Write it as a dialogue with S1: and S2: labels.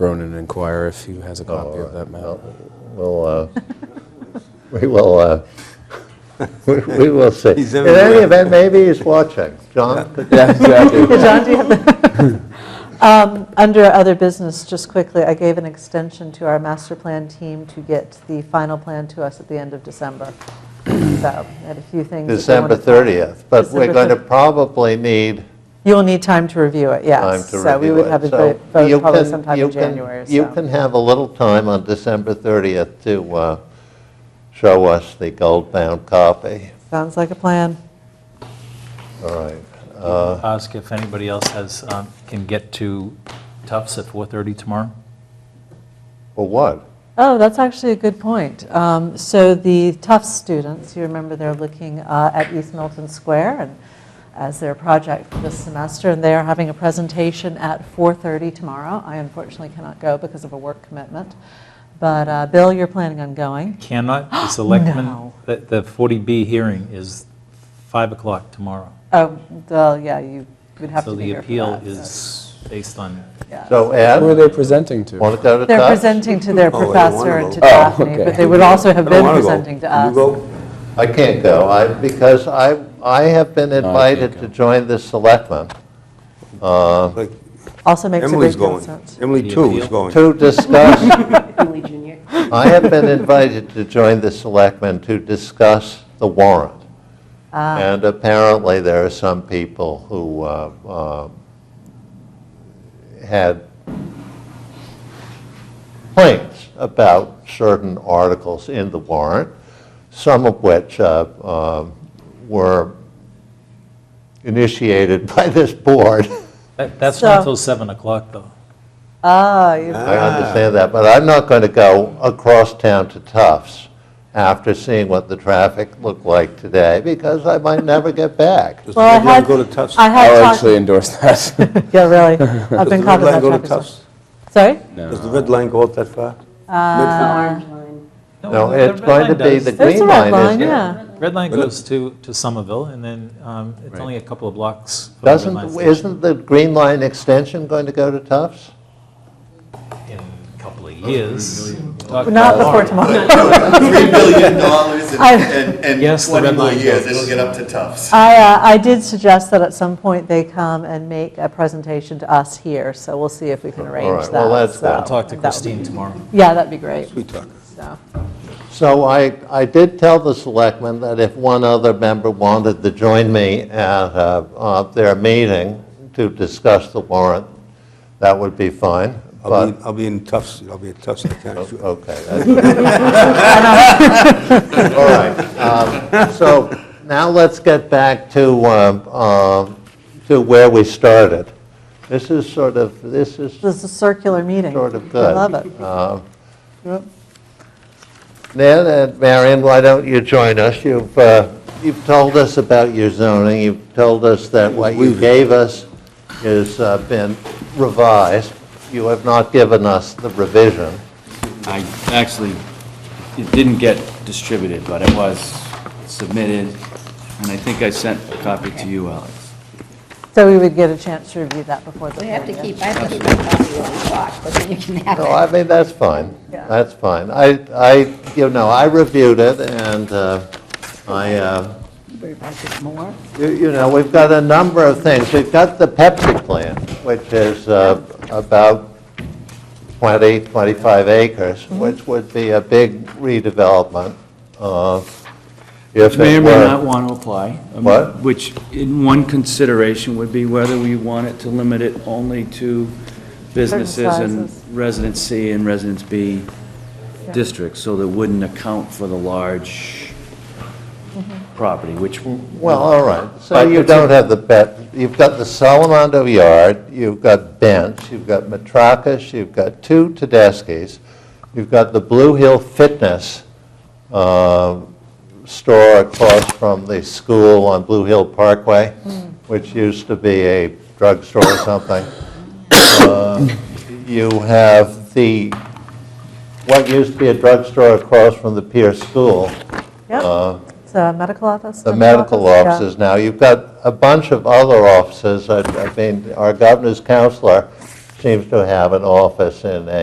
S1: Ronan and inquire if he has a copy of that map.
S2: We'll, uh, we will, uh, we we will see.
S3: He's
S2: In any
S3: everywhere.
S2: event, maybe he's watching. John, could-
S1: Yeah, exactly.
S4: John, do you have Um, Under other business, just quickly, I gave an extension to our master plan team to get the final plan to us at the end of December. So, I had a few things. that they
S2: December
S4: wanted-
S2: 30th, but we're
S4: December
S2: going to
S4: 30th.
S2: probably need
S4: You'll need time to review it, yes.
S2: time to review it.
S4: So we would have a
S2: So
S4: vote vote
S2: you
S4: probably
S2: can-
S4: sometime
S2: you
S4: in
S2: can-
S4: January,
S2: You
S4: so.
S2: can have a little time on December 30th to uh, show us the gold-bound copy.
S4: Sounds like a plan.
S2: All right. Uh,
S5: Uh, Ask if anybody else has, um, can get to Tufts at 4:30 tomorrow?
S2: For what?
S4: Oh, that's actually a good point. Um, So the Tufts students, you remember they're looking uh, at East Milton Square and as their project for this semester, and they are having a presentation at 4:30 tomorrow. I unfortunately cannot go because of a work commitment, but uh, Bill, you're planning on going?
S5: Cannot, the selectmen,
S4: No.
S5: the the 40B hearing is 5 o'clock tomorrow.
S4: Oh, well, yeah, you would have to
S5: So
S4: be
S5: the
S4: here for
S5: appeal
S4: that,
S5: is based on,
S4: yeah.
S2: So
S1: Who are
S2: Ed,
S1: they presenting to?
S2: want to go to
S4: They're
S2: Tufts?
S4: presenting to their
S3: Oh, wait, one of
S4: professor and
S3: those.
S4: to
S1: Oh,
S4: Daphne,
S1: okay.
S4: but they would also have
S3: I don't
S4: been
S3: wanna go.
S4: presenting to
S3: Can
S4: us.
S3: you go?
S2: I can't go, I, because I, I have been invited to join the selectmen
S3: Like,
S4: Also makes a
S3: Emily's
S4: big deal of
S3: going.
S4: sense.
S3: Emily
S5: The
S3: too is
S5: appeal.
S3: going.
S2: to discuss,
S6: Emily Junior.
S2: I have been invited to join the selectmen to discuss the warrant. And apparently, there are some people who uh, uh, had complaints about certain articles in the warrant, some of which uh, um, were initiated by this board.
S5: that- that's
S4: So-
S5: not until 7 o'clock, though.
S4: Ah, you
S2: I understand that, but I'm not going to go across town to Tufts after seeing what the traffic looked like today, because I might never get back.
S3: Does the
S4: Well, I
S3: red line
S4: had,
S3: go to Tufts?
S4: I
S1: I'll
S4: had
S1: actually
S4: talked,
S1: endorse that.
S4: yeah, really, I've
S3: Does
S4: been
S3: the red
S4: caught in
S3: line
S4: that
S3: go to
S4: traffic. circle.
S3: Tufts?
S4: Sorry?
S3: Does the red line go up that far?
S6: Orange line.
S2: No,
S5: the- the
S2: it's
S5: red
S2: going to
S5: line
S2: be,
S5: does.
S2: the
S4: There's
S2: green
S4: a red
S2: line
S4: line,
S2: is,
S4: yeah.
S5: Red line goes to, to Somerville, and then um, it's only a couple of blocks. from the red
S2: doesn't,
S5: line station
S2: isn't the green line extension going to go to Tufts?
S5: In a couple of years.
S4: Not before tomorrow.
S7: Three billion dollars
S4: I-
S7: and, and
S5: Yes, the
S7: twenty
S5: red
S7: more
S5: line
S7: years,
S5: goes.
S7: it'll get up to Tufts.
S4: I, uh, I did suggest that at some point they come and make a presentation to us here, so we'll see if we can arrange
S2: right,
S4: that.
S2: well, that's
S4: so
S2: good.
S5: I'll talk to
S4: that would be-
S5: Christine tomorrow.
S4: Yeah, that'd be great,
S3: We talk.
S4: so,
S2: So I, I did tell the selectmen that if one other member wanted to join me at uh, uh, their meeting to discuss the warrant, that would be fine,
S3: I'll
S2: but,
S3: be, I'll be in Tufts, I'll be at Tufts. I can't-
S2: okay. that's- All right. um, So now let's get back to, um, um, to where we started. This is sort of, this is
S4: this is a circular meeting.
S2: Sort of
S4: I
S2: good. Um,
S4: love it.
S2: Ned and Marion, why don't you join us? You've, uh, you've told us about your zoning, you've told us that what you gave us has uh, been revised. You have not given us the revision.
S8: I actually, it didn't get distributed, but it was submitted, and I think I sent a copy to you, Alex.
S4: So we would get a chance to review that before the
S6: I have to
S4: meeting.
S6: keep, I have to keep my copy on the clock, but then you can have
S2: No, I
S6: it.
S2: mean, that's fine.
S4: Yeah.
S2: That's fine. I, I, you know, I reviewed it, and uh, I, uh,
S6: Better pass it more.
S2: You you know, we've got a number of things. We've got the Pepsi plant, which is uh, about 20, 25 acres, which would be a big redevelopment uh, if
S8: Which may
S2: it
S8: or may not
S2: were.
S8: want to apply. um,
S2: What?
S8: Which, in one consideration, would be whether we wanted to limit it only to businesses and
S4: sizes.
S8: residence C and residence B districts, so that wouldn't account for the large property, which
S2: Well, all right. So
S8: But
S2: you
S8: it's
S2: don't have the bet, you've got the Salamondo Yard, you've got Bench, you've got Matrakas, you've got two Tedeschi's, you've got the Blue Hill Fitness um, store across from the school on Blue Hill Parkway, which used to be a drugstore or something. Uh, You have the, what used to be a drugstore across from the Pierce School,
S4: Yep, it's a medical office.
S2: Uh, the
S4: dental
S2: medical
S4: office, yeah.
S2: offices now. You've got a bunch of other offices. I I mean, our governor's counselor seems to have an office in a